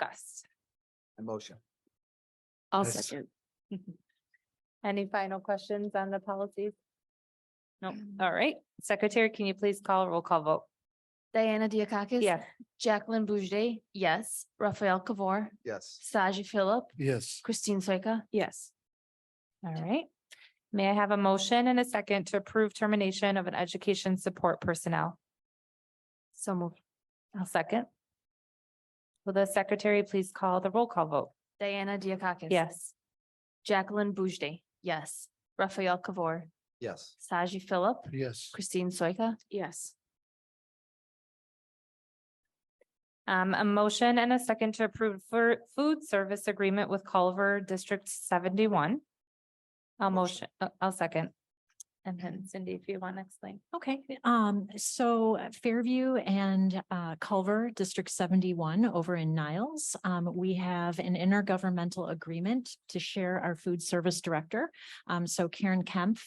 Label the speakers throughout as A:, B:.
A: discussed.
B: A motion.
A: I'll
C: Yes.
A: second. Any final questions on the policies? No, all right. Secretary, can you please call roll call vote?
D: Diana Diakakis?
A: Yes.
D: Jacqueline Boujde, yes. Raphael Kabor,
B: Yes.
D: Saji Philip,
C: Yes,
D: Christine Soika,
A: Yes. All right. May I have a motion and a second to approve termination of an education support personnel? So move. I'll second. Will the secretary please call the roll call vote?
D: Diana Diakakis?
A: Yes.
D: Jacqueline Boujde, yes. Raphael Kabor,
B: Yes.
D: Saji Philip,
C: yes,
D: Christine Soika,
A: Yes. Um, a motion and a second to approve for food service agreement with Culver District seventy-one. I'll motion, uh, I'll second. And then Cindy, if you want to explain.
E: Okay, um, so Fairview and uh, Culver District seventy-one over in Niles. Um, we have an intergovernmental agreement to share our food service director. Um, so Karen Kemp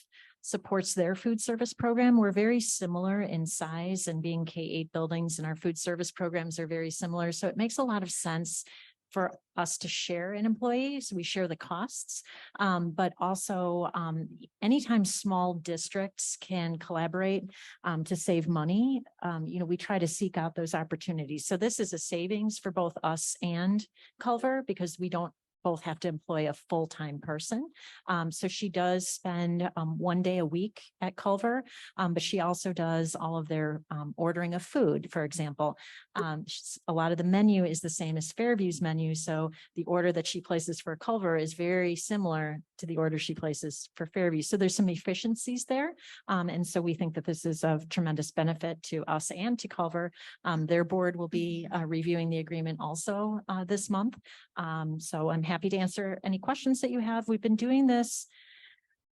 E: supports their food service program. We're very similar in size and being K eight buildings and our food service programs are very similar. So it makes a lot of sense for us to share in employees. We share the costs. Um, but also, um, anytime small districts can collaborate um, to save money, um, you know, we try to seek out those opportunities. So this is a savings for both us and Culver because we don't both have to employ a full-time person. Um, so she does spend um, one day a week at Culver, um, but she also does all of their um, ordering of food, for example. Um, she's- a lot of the menu is the same as Fairview's menu, so the order that she places for Culver is very similar to the order she places for Fairview. So there's some efficiencies there. Um, and so we think that this is of tremendous benefit to us and to Culver. Um, their board will be uh, reviewing the agreement also uh, this month. Um, so I'm happy to answer any questions that you have. We've been doing this.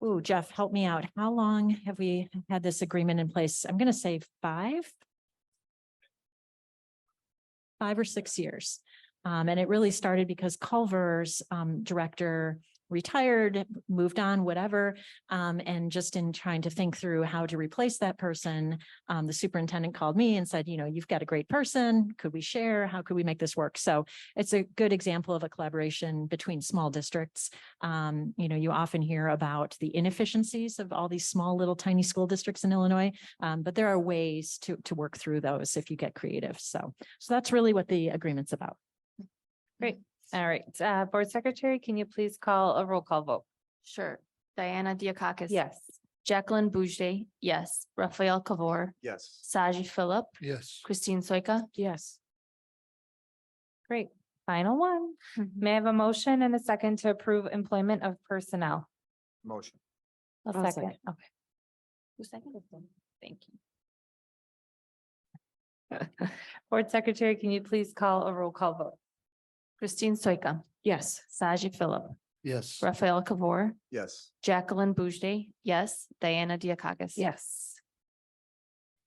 E: Ooh, Jeff, help me out. How long have we had this agreement in place? I'm going to say five. Five or six years. Um, and it really started because Culver's, um, director retired, moved on, whatever. Um, and just in trying to think through how to replace that person, um, the superintendent called me and said, you know, you've got a great person. Could we share? How could we make this work? So it's a good example of a collaboration between small districts. Um, you know, you often hear about the inefficiencies of all these small little tiny school districts in Illinois. Um, but there are ways to, to work through those if you get creative. So, so that's really what the agreement's about.
A: All right, uh, Board Secretary, can you please call a roll call vote?
D: sure. Diana Diakakis?
A: Yes.
D: Jacqueline Boujde, yes. Raphael Kabor,
B: Yes.
D: Saji Philip,
C: yes,
D: Christine Soika,
A: Yes. Great, final one. May I have a motion and a second to approve employment of personnel?
B: Motion.
A: A
D: I'll
A: second,
D: second.
A: okay. Who seconded them? Thank you. Board Secretary, can you please call a roll call vote?
D: Christine Soika. Yes. Saji Philip,
C: yes,
D: Raphael Kabor,
B: Yes.
D: Jacqueline Boujde, yes. Diana Diakakis?
A: Yes.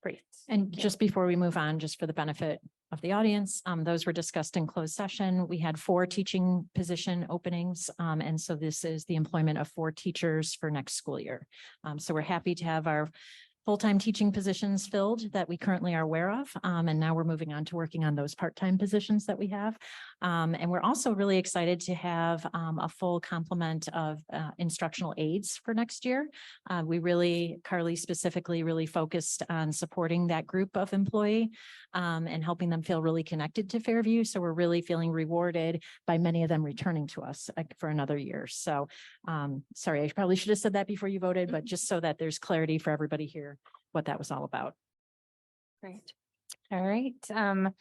A: Great.
E: And just before we move on, just for the benefit of the audience, um, those were discussed in closed session. We had four teaching position openings. Um, and so this is the employment of four teachers for next school year. Um, so we're happy to have our full-time teaching positions filled that we currently are aware of. Um, and now we're moving on to working on those part-time positions that we have. Um, and we're also really excited to have, um, a full complement of, uh, instructional aides for next year. Uh, we really, Carly specifically really focused on supporting that group of employee um, and helping them feel really connected to Fairview. So we're really feeling rewarded by many of them returning to us uh, for another year. So um, sorry, I probably should have said that before you voted, but just so that there's clarity for everybody here, what that was all about.
A: Great. All right, um,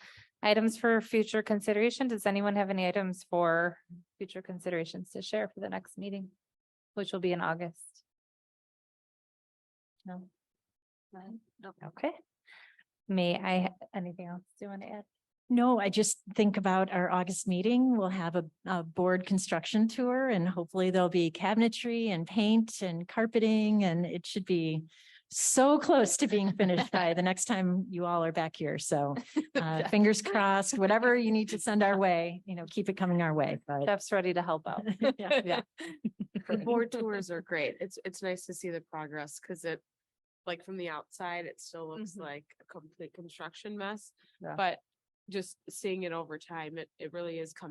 A: items for future consideration. Does anyone have any items for future considerations to share for the next meeting? Which will be in August? No? Okay. May I, anything else Do you want to add?
E: No, I just think about our August meeting. We'll have a, a board construction tour and hopefully there'll be cabinetry and paint and carpeting and it should be so close to being finished by the next time you all are back here. So uh, fingers crossed, whatever you need to send our way, you know, keep it coming our way, but.
A: Jeff's ready to help out.
E: Yeah, yeah.
F: The board tours are great. It's, it's nice to see the progress because it, like from the outside, it still looks
A: Mhm.
F: like a complete construction mess.
A: Yeah.
F: But
A: just seeing it over time, it, it really is coming